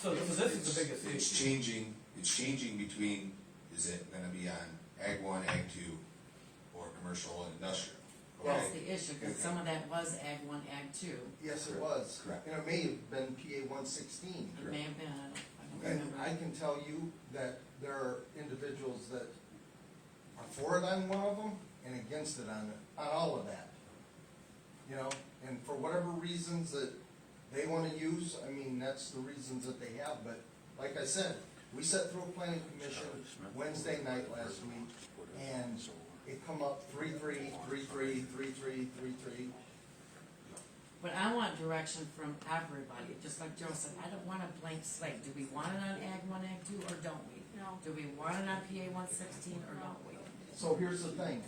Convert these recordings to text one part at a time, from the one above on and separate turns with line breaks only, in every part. So, so this is the biggest
It's
issue.
changing, it's changing between, is it gonna be on ag one, ag two, or commercial and industrial?
That's
Okay,
the issue, because some of that was ag one, ag two,
Yes, it was.
Correct.
And it may have been PA one sixteen.
it may have been, I don't, I
And
don't
I
remember.
can tell you that there are individuals that are for it on one of them and against it on, on all of that. You know, and for whatever reasons that they wanna use, I mean, that's the reasons that they have, but like I said, we sat through a planning commission Wednesday night last week, and it come up three, three, three, three, three, three, three, three.
But I want direction from everybody, just like Joe said, I don't want a blank slate, do we want it on ag one, ag two, or don't we?
No.
Do we want it on PA one sixteen, or don't we?
So here's the thing,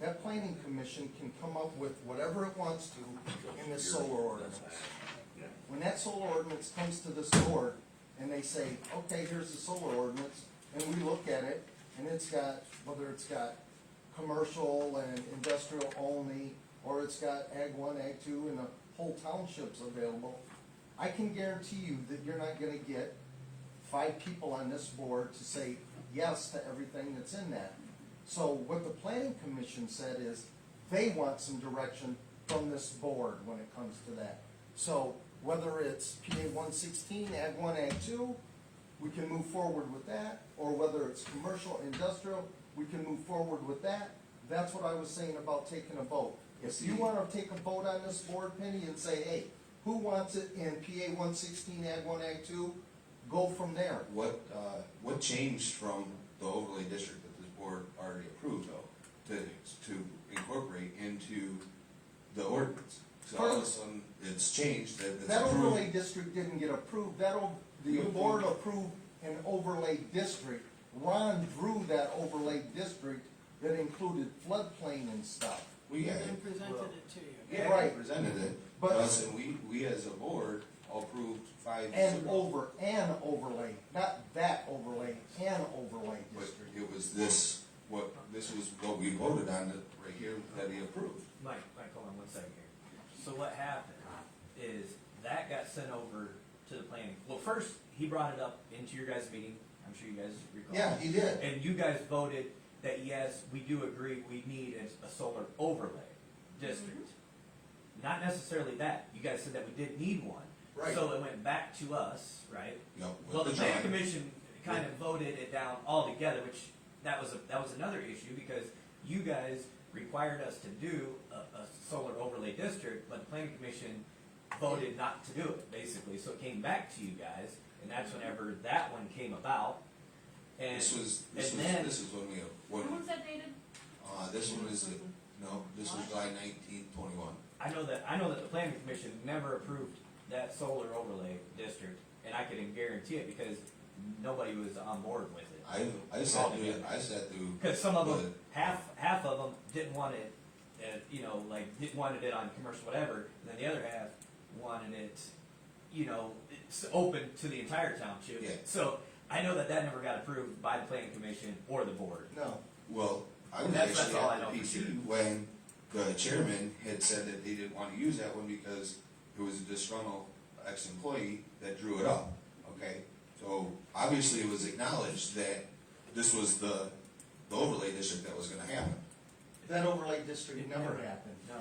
that planning commission can come up with whatever it wants to in this solar ordinance. When that solar ordinance comes to this board, and they say, okay, here's the solar ordinance, and we look at it, and it's got, whether it's got commercial and industrial only, or it's got ag one, ag two, and the whole township's available, I can guarantee you that you're not gonna get five people on this board to say yes to everything that's in that. So what the planning commission said is, they want some direction from this board when it comes to that. So whether it's PA one sixteen, ag one, ag two, we can move forward with that, or whether it's commercial, industrial, we can move forward with that. That's what I was saying about taking a vote. If you wanna take a vote on this board, Penny, and say, hey, who wants it in PA one sixteen, ag one, ag two, go from there.
What, uh, what changed from the overlay district that this board already approved though, to, to incorporate into the ordinance? So all of a sudden, it's changed, that it's
That overlay
approved.
district didn't get approved, that, o- the board approved an overlay district. Ron drew that overlay district that included floodplain and stuff.
We had it.
And presented it to you.
Yeah,
Right.
they presented it,
But-
but us and we, we as a board approved five.
And
zero.
over, an overlay, not that overlay, an overlay
But
district.
it was this, what, this was what we voted on that right here that he approved.
Mike, Mike, hold on one second here. So what happened is that got sent over to the planning, well, first, he brought it up into your guys' meeting, I'm sure you guys recall.
Yeah, he did.
And you guys voted that yes, we do agree, we need a, a solar overlay district.
Mm-hmm.
Not necessarily that, you guys said that we did need one.
Right.
So it went back to us, right?
Yep, with
Well, the
the
planning
drawing.
commission kind of voted it down altogether, which, that was, a- that was another issue, because you guys required us to do a, a solar overlay district, but the planning commission voted not to do it, basically, so it came back to you guys, and that's whenever that one came about. And,
This was, this
and
was,
then-
this is when we, when,
When's that dated?
uh, this one is, the- no, this was July nineteenth, twenty-one.
I know that, I know that the planning commission never approved that solar overlay district, and I can guarantee it, because nobody was on board with it.
I, I sat through, it. I sat through.
Because some of them,
the-
half, half of them didn't want it, uh, you know, like, didn't wanted it on commercial whatever, and then the other half wanted it, you know, it's open to the entire township.
Yeah.
So, I know that that never got approved by the planning commission or the board.
No,
Well, I was
That's- that's
actually
all I
at
know for
the
sure.
PC when the chairman had said that they didn't wanna use that one because it was a disgruntled ex-employee that drew it up, okay? So obviously it was acknowledged that this was the, the overlay district that was gonna happen.
that overlay district never happened.
No.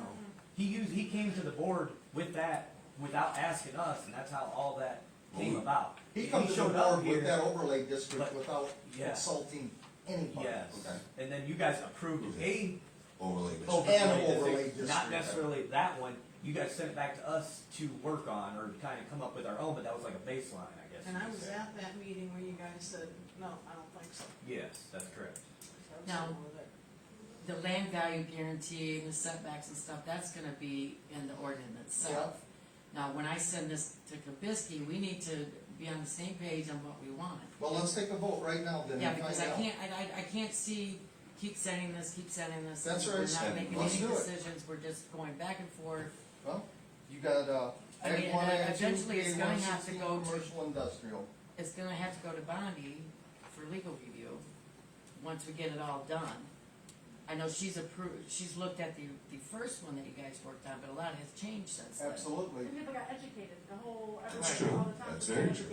He used, he came to the board with that, without asking us, and that's how all that came
Well,
about.
He comes to the
showed up
board
here-
with that overlay district
but-
without
Yeah.
consulting anybody.
Yes,
Okay.
and then you guys approved a
Overlay district.
overlay
And
district,
overlay
Not
district.
necessarily that one, you guys sent it back to us to work on or kind of come up with our own, but that was like a baseline, I guess.
And
you
I
could
was
say.
at that meeting where you guys said, no, I don't think so.
Yes, that's correct.
I was
No.
over there.
The land value guarantee and the setbacks and stuff, that's gonna be in the ordinance itself. Now, when I send this to Kabisky, we need to be on the same page on what we want.
Well, let's take a vote right now then
Yeah,
and
because I
find out.
can't, I, I, I can't see, keep sending this, keep sending this.
That's
We're
right,
not
Send-
making
let's
any
do it.
decisions, we're just going back and forth.
Well, you got, uh,
I mean,
ag one, ag two,
eventually it's
PA
gonna
one
have to
sixteen,
go to-
commercial, industrial.
It's gonna have to go to Bondi for legal review, once we get it all done. I know she's approved, she's looked at the, the first one that you guys worked on, but a lot has changed since then.
Absolutely.
And people got educated, the whole,
That's
everybody, all
true.
the time.
That's
was
very
educated.
true.